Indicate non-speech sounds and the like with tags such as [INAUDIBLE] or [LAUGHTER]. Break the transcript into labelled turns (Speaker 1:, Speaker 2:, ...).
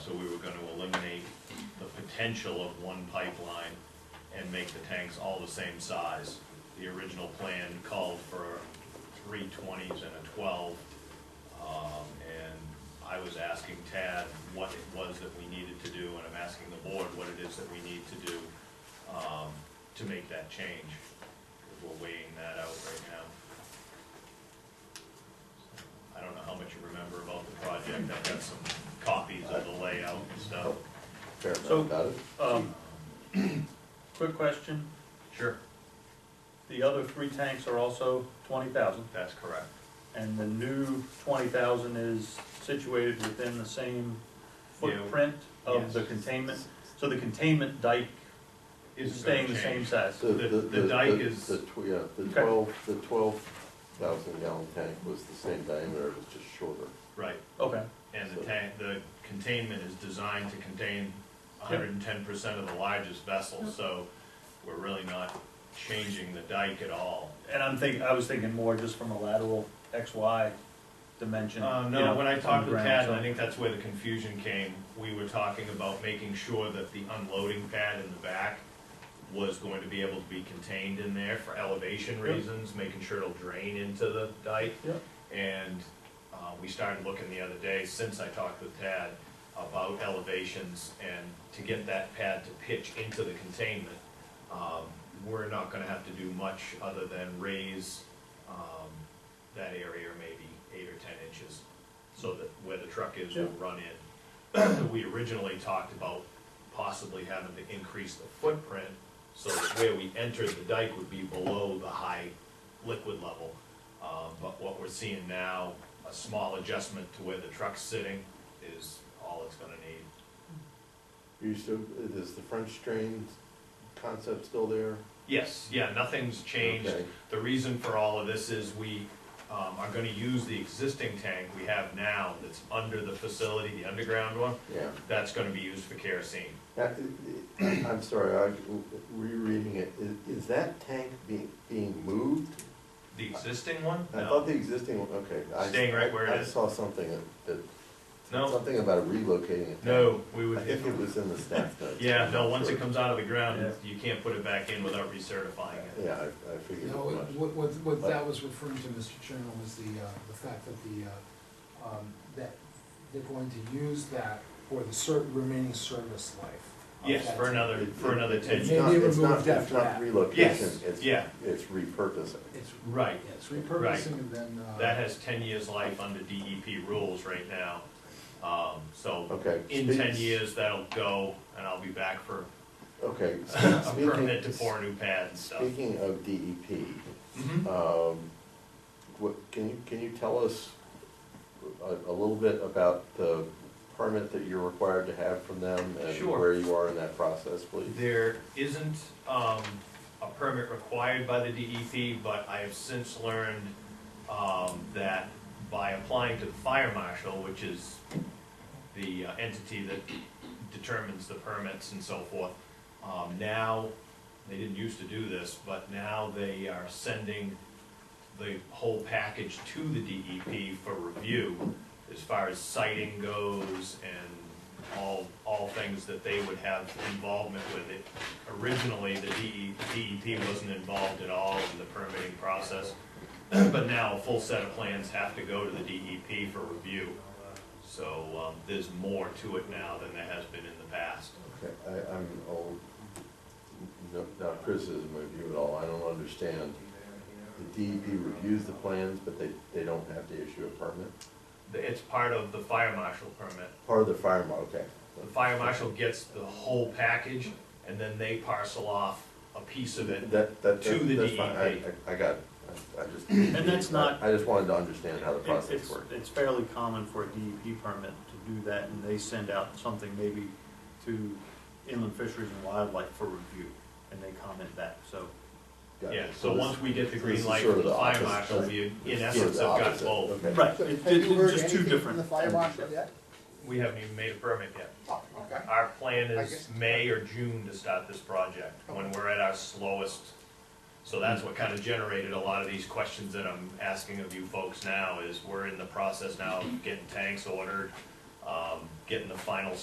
Speaker 1: so we were gonna eliminate the potential of one pipeline and make the tanks all the same size. The original plan called for three twenties and a twelve. Um, and I was asking Tad what it was that we needed to do, and I'm asking the board what it is that we need to do, um, to make that change. We're weighing that out right now. I don't know how much you remember about the project, I've got some copies of the layout and stuff.
Speaker 2: Fair
Speaker 3: So-
Speaker 2: enough about it.
Speaker 3: Um, [CLEARS THROAT] Quick question,
Speaker 1: Sure.
Speaker 3: the other three tanks are also twenty thousand,
Speaker 1: That's correct.
Speaker 3: and the new twenty thousand is situated within the same
Speaker 1: Yeah.
Speaker 3: footprint of the
Speaker 1: Yes.
Speaker 3: containment? So the containment dike is
Speaker 1: Is
Speaker 3: staying the same size?
Speaker 2: The-
Speaker 1: the- the dike
Speaker 2: the-
Speaker 1: is-
Speaker 2: The, tw- yeah, the
Speaker 3: Okay.
Speaker 2: twelve, the twelve thousand gallon tank was the same diameter, it was just shorter.
Speaker 1: Right,
Speaker 3: Okay,
Speaker 1: and the tank, the containment is designed to contain hundred and ten percent of the largest vessel, so we're really not changing the dike at all.
Speaker 3: and I'm thinking, I was thinking more just from a lateral XY dimension.
Speaker 1: Uh,
Speaker 3: you
Speaker 1: no,
Speaker 3: know,
Speaker 1: when I
Speaker 3: on
Speaker 1: talked
Speaker 3: the
Speaker 1: to
Speaker 3: ground,
Speaker 1: Tad,
Speaker 3: so-
Speaker 1: I think that's where the confusion came, we were talking about making sure that the unloading pad in the back was going to be able to be contained in there for elevation
Speaker 3: Yep.
Speaker 1: reasons, making sure it'll drain into the dike.
Speaker 3: Yep.
Speaker 1: And, uh, we started looking the other day, since I talked with Tad, about elevations and to get that pad to pitch into the containment. Um, we're not gonna have to do much other than raise, um, that area maybe eight or ten inches, so that where the truck is will run in. [CLEARS THROAT] We originally talked about possibly having to increase the footprint, so that where we entered the dike would be below the high liquid level. Uh, but what we're seeing now, a small adjustment to where the truck's sitting is all it's gonna need.
Speaker 2: You still, is the French drain concept still there?
Speaker 1: Yes, yeah, nothing's changed.
Speaker 2: Okay.
Speaker 1: The reason for all of this is we um, are gonna use the existing tank we have now that's under the facility, the underground one,
Speaker 2: Yeah,
Speaker 1: that's gonna be used for kerosene.
Speaker 2: That- I- I'm sorry, I, rereading it, Is- is that tank being, being moved?
Speaker 1: The existing one?
Speaker 2: I thought
Speaker 1: No,
Speaker 2: the existing, one. okay. I-
Speaker 1: Staying right where it
Speaker 2: I
Speaker 1: is.
Speaker 2: saw something that- that,
Speaker 1: no,
Speaker 2: something about relocating it.
Speaker 1: no, we
Speaker 2: I think it
Speaker 1: would,
Speaker 2: was in the staff notes.
Speaker 1: yeah, no, once it comes out of the ground,
Speaker 3: Yeah.
Speaker 1: you can't put it back in without recertifying it.
Speaker 2: Yeah, I, I figured
Speaker 4: No,
Speaker 2: as much.
Speaker 4: what, what, what that was referring to, Mr. Chairman, was the, uh, the fact that the, uh, um, that they're going to use that for the cer- remaining service life. of
Speaker 1: Yes,
Speaker 4: that
Speaker 1: for
Speaker 4: tank.
Speaker 1: another, for another ten years.
Speaker 2: It's
Speaker 4: Yeah.
Speaker 2: not,
Speaker 4: Maybe
Speaker 2: it's not,
Speaker 4: removed
Speaker 2: it's
Speaker 4: after
Speaker 2: not
Speaker 4: that.
Speaker 2: relocation,
Speaker 1: Yes,
Speaker 2: it's,
Speaker 1: yeah.
Speaker 2: it's repurposing.
Speaker 4: It's,
Speaker 1: Right,
Speaker 4: yeah, it's repurposing and then, uh.
Speaker 1: that has ten years life under DEP rules right now. Um, So
Speaker 2: Okay.
Speaker 1: in
Speaker 2: speak-
Speaker 1: ten years, that'll go, and I'll be back for
Speaker 2: Okay.
Speaker 1: [LAUGHS] a
Speaker 2: speak-
Speaker 1: permit to
Speaker 2: speaking-
Speaker 1: pour a new pad and stuff.
Speaker 2: Speaking of DEP,
Speaker 1: Mhm.
Speaker 2: um, what, can you, can you tell us a, a little bit about the permit that you're required to have from them? And
Speaker 1: Sure.
Speaker 2: where you are in that process, please?
Speaker 1: There isn't um, a permit required by the DEP, but I have since learned um, that by applying to the fire marshal, which is the uh, entity that determines the permits and so forth, um, now, they didn't used to do this, but now they are sending the whole package to the DEP for review as far as sighting goes and all, all things that they would have involvement with it. Originally, the DE DEP wasn't involved at all in the permitting process, [CLEARS THROAT] but now a full set of plans have to go to the DEP for review. So, um, there's more to it now than there has been in the past.
Speaker 2: Okay, I, I'm old, no, not criticism of you at all, I don't understand. The DEP reviews the plans, but they, they don't have to issue a permit?
Speaker 1: It's part of the fire marshal permit.
Speaker 2: Part of the fire, mar- okay.
Speaker 1: The fire marshal gets the whole package, and then they parcel off a piece of it.
Speaker 2: That, that,
Speaker 1: To the E
Speaker 2: that's fine, I,
Speaker 1: DEP.
Speaker 2: I I got, it. I- I just. And
Speaker 3: that's not-
Speaker 2: I just wanted to understand how the
Speaker 3: It-
Speaker 2: process
Speaker 3: it's-
Speaker 2: worked.
Speaker 3: It's fairly common for a DEP permit to do that, and they send out something maybe to inland fisheries and wildlife for review, and they comment back, so.
Speaker 2: Got it.
Speaker 1: Yeah, so
Speaker 2: this-
Speaker 1: once we get the
Speaker 2: this is
Speaker 1: green light
Speaker 2: sort
Speaker 1: from
Speaker 2: of
Speaker 1: the
Speaker 2: the
Speaker 1: fire
Speaker 2: opposite,
Speaker 1: marshal,
Speaker 2: right?
Speaker 1: we,
Speaker 2: It's
Speaker 1: in
Speaker 2: sort
Speaker 1: essence,
Speaker 2: of
Speaker 1: have
Speaker 2: the
Speaker 1: got
Speaker 2: opposite,
Speaker 1: both.
Speaker 2: okay.
Speaker 3: Right,
Speaker 4: So
Speaker 3: it-
Speaker 4: Have you
Speaker 3: it's
Speaker 4: heard
Speaker 3: just two
Speaker 4: anything from the
Speaker 3: different.
Speaker 4: fire marshal yet?
Speaker 1: We haven't even made a permit yet.
Speaker 4: Oh, okay.
Speaker 1: Our plan
Speaker 4: I
Speaker 1: is
Speaker 4: guess-
Speaker 1: May or June to start this project, when we're at our slowest. So that's what kind of generated a lot of these questions that I'm asking of you folks now, is we're in the process now of getting tanks ordered, um, getting the final